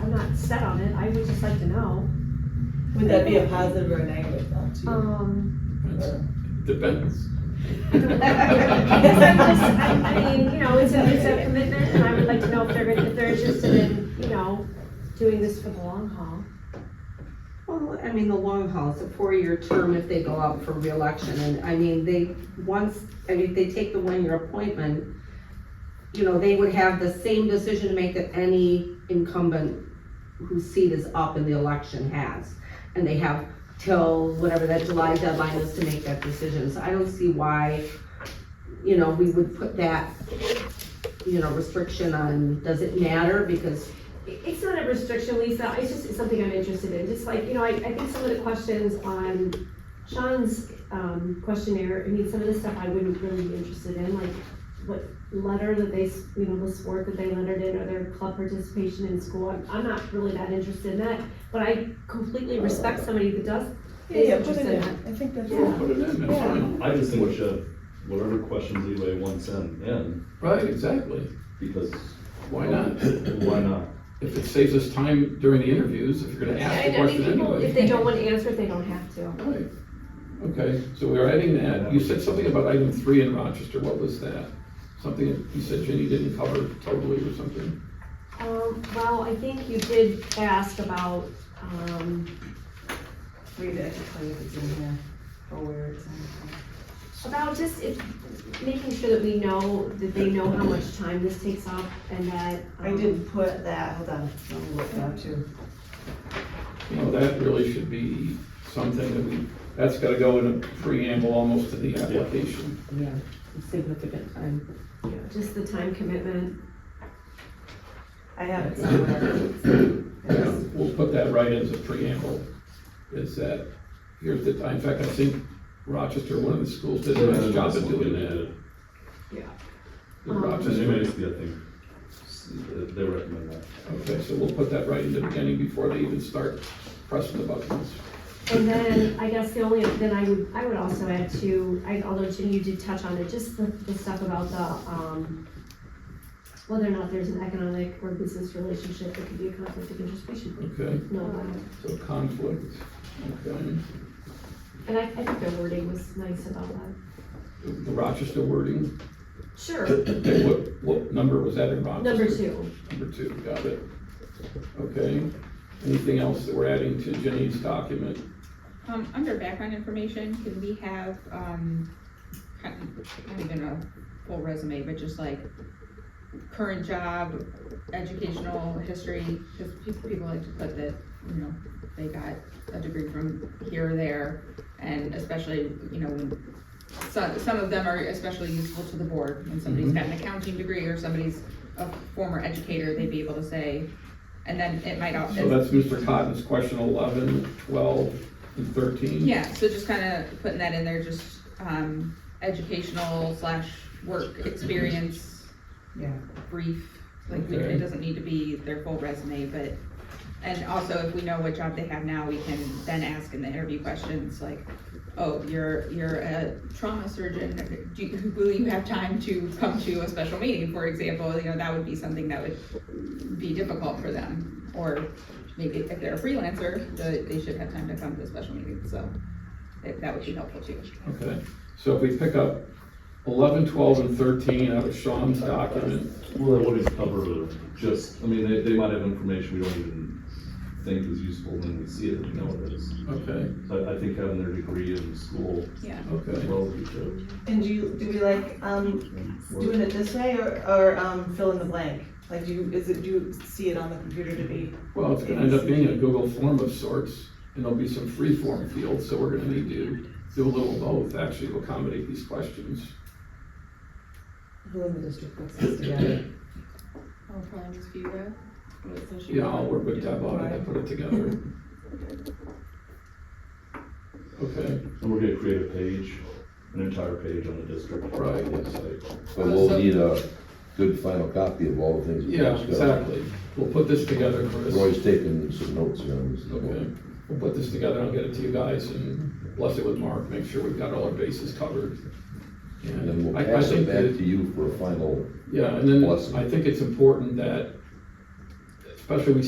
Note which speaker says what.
Speaker 1: I'm not set on it, I would just like to know.
Speaker 2: Would that be a positive or a negative though, too?
Speaker 1: Um,
Speaker 3: Depends.
Speaker 1: yes, I'm just, I, I mean, you know, it's a, it's a commitment, and I would like to know if they're, gonna- if they're interested in, you know, doing this for the long haul.
Speaker 4: Well, I mean, the long haul, it's a four-year term if they go out for reelection, and I mean, they, once, I mean, if they take the one-year appointment, you know, they would have the same decision to make that any incumbent whose seat is up in the election has. And they have till whatever that July deadline is to make that decision, so I don't see why, you know, we would put that, you know, restriction on, does it matter, because,
Speaker 1: It- It's not a restriction, Lisa, it's just, it's something I'm interested in, just like, you know, I, I think some of the questions on Sean's, um, questionnaire, I mean, some of the stuff I wouldn't really be interested in, like, what letter that they, s- you know, the sport that they lettered in, or their club participation in school, I'm, I'm not really that interested in that, but I completely respect somebody that does,
Speaker 2: Yeah, yeah,
Speaker 1: is
Speaker 2: put
Speaker 1: interested
Speaker 2: it in,
Speaker 1: in that.
Speaker 2: I think that's.
Speaker 1: Yeah.
Speaker 3: Put it in, that's fine.
Speaker 5: I just think we should, whatever questions Leeway wants in, in,
Speaker 3: Right, exactly.
Speaker 5: because.
Speaker 3: Why not?
Speaker 5: Why not?
Speaker 3: If it saves us time during the interviews, if you're gonna ask the
Speaker 1: And I mean,
Speaker 3: question
Speaker 1: people, if
Speaker 3: anyway.
Speaker 1: they don't want to answer it, they don't have to.
Speaker 3: Right. Okay, so we're adding that. You said something about item three in Rochester. What was that? Something that you said Jenny didn't cover totally or something?
Speaker 1: Um, well, I think you did ask about, um,
Speaker 2: Read it, tell you if it's in here, or where it's in.
Speaker 1: About just it, making sure that we know, that they know how much time this takes up and that.
Speaker 2: I
Speaker 1: um,
Speaker 2: did put that, hold on, let me look it up too.
Speaker 3: You know, that really should be something that we, that's gotta go in a preamble almost to the application.
Speaker 4: yeah, significant time.
Speaker 1: um, you know, Just the time commitment.
Speaker 2: I have it somewhere.
Speaker 3: Yeah,
Speaker 2: Yes.
Speaker 3: We'll put that right as a preamble. Is that, here's the time. In fact, I think Rochester, one of the schools did a nice job of doing that. The
Speaker 1: Um,
Speaker 5: Just
Speaker 3: Rochester.
Speaker 5: anyways, yeah, I think, s- they recommend that.
Speaker 3: Okay, so we'll put that right in the beginning before they even start pressing the buttons.
Speaker 1: And then I guess the only, then I would, I would also add to, I, although Jen, you did touch on it, just the, the stuff about the, um, whether or not there's an economic or business relationship that could be a conflict of interest, we should
Speaker 3: Okay,
Speaker 1: know about it.
Speaker 3: so conflict, okay.
Speaker 1: And I, I think their wording was nice about that.
Speaker 3: The Rochester wording,
Speaker 1: Sure,
Speaker 3: okay, what, what number was that in Rochester?
Speaker 1: number two.
Speaker 3: Number two, got it. Okay, anything else that we're adding to Jenny's document?
Speaker 6: Um, under background information, can we have, um, kind of- not even a full resume, but just like current job, educational history, because people like to put that, you know, they got a degree from here or there, and especially, you know, when some, some of them are especially useful to the board, when somebody's got an accounting degree or somebody's a former educator, they'd be able to say, and then it might also.
Speaker 3: So that's Mr. Cotton's question 11, 12, and thirteen.
Speaker 6: Yeah, so just kind of putting that in there, just, um, educational slash work experience.
Speaker 2: Yeah.
Speaker 6: Brief, like, we-
Speaker 3: Okay.
Speaker 6: it doesn't need to be their full resume, but, and also if we know what job they have now, we can then ask in the interview questions, like, oh, you're, you're a trauma surgeon, do, you- will you have time to come to a special meeting, for example, you know, that would be something that would be difficult for them. Or maybe if they're a freelancer, the- they should have time to come to a special meeting, so that that would be helpful too.
Speaker 3: Okay, so if we pick up 11, 12, and thirteen out of Sean's document,
Speaker 5: Well, that wouldn't cover just, I mean, they, they might have information we don't even think is useful when we see it, we know it is.
Speaker 3: okay,
Speaker 5: So I, I think having their degree in school
Speaker 6: Yeah.
Speaker 3: okay.
Speaker 5: well would be good.
Speaker 2: And do you, do we like, um, doing it this way or, or, um, fill in the blank? Like, do you, is it, do you see it on the computer to be?
Speaker 3: Well, it's gonna end up being a Google form of sorts, and there'll be some free form fields, so we're gonna need to do a little both, actually, to accommodate these questions.
Speaker 2: Who in the district puts this together?
Speaker 6: Oh, probably just Vera.
Speaker 3: Yeah, I'll work with Deb on it and put it together. Okay,
Speaker 5: And we're gonna create a page, an entire page on the district.
Speaker 3: Right.
Speaker 5: website.
Speaker 3: Uh,
Speaker 7: But we'll need a good final copy of all the things. we
Speaker 3: yeah,
Speaker 7: discussed.
Speaker 3: exactly. We'll put this together, Chris.
Speaker 7: Roy's taking some notes here on this.
Speaker 3: Okay, we'll put this together, I'll get it to you guys and bless it with Mark, make sure we've got all our bases covered.
Speaker 7: And then we'll
Speaker 3: I- I
Speaker 7: pass it
Speaker 3: think that-
Speaker 7: back to you for a final
Speaker 3: Yeah, and then
Speaker 7: Blessing.
Speaker 3: I think it's important that, especially we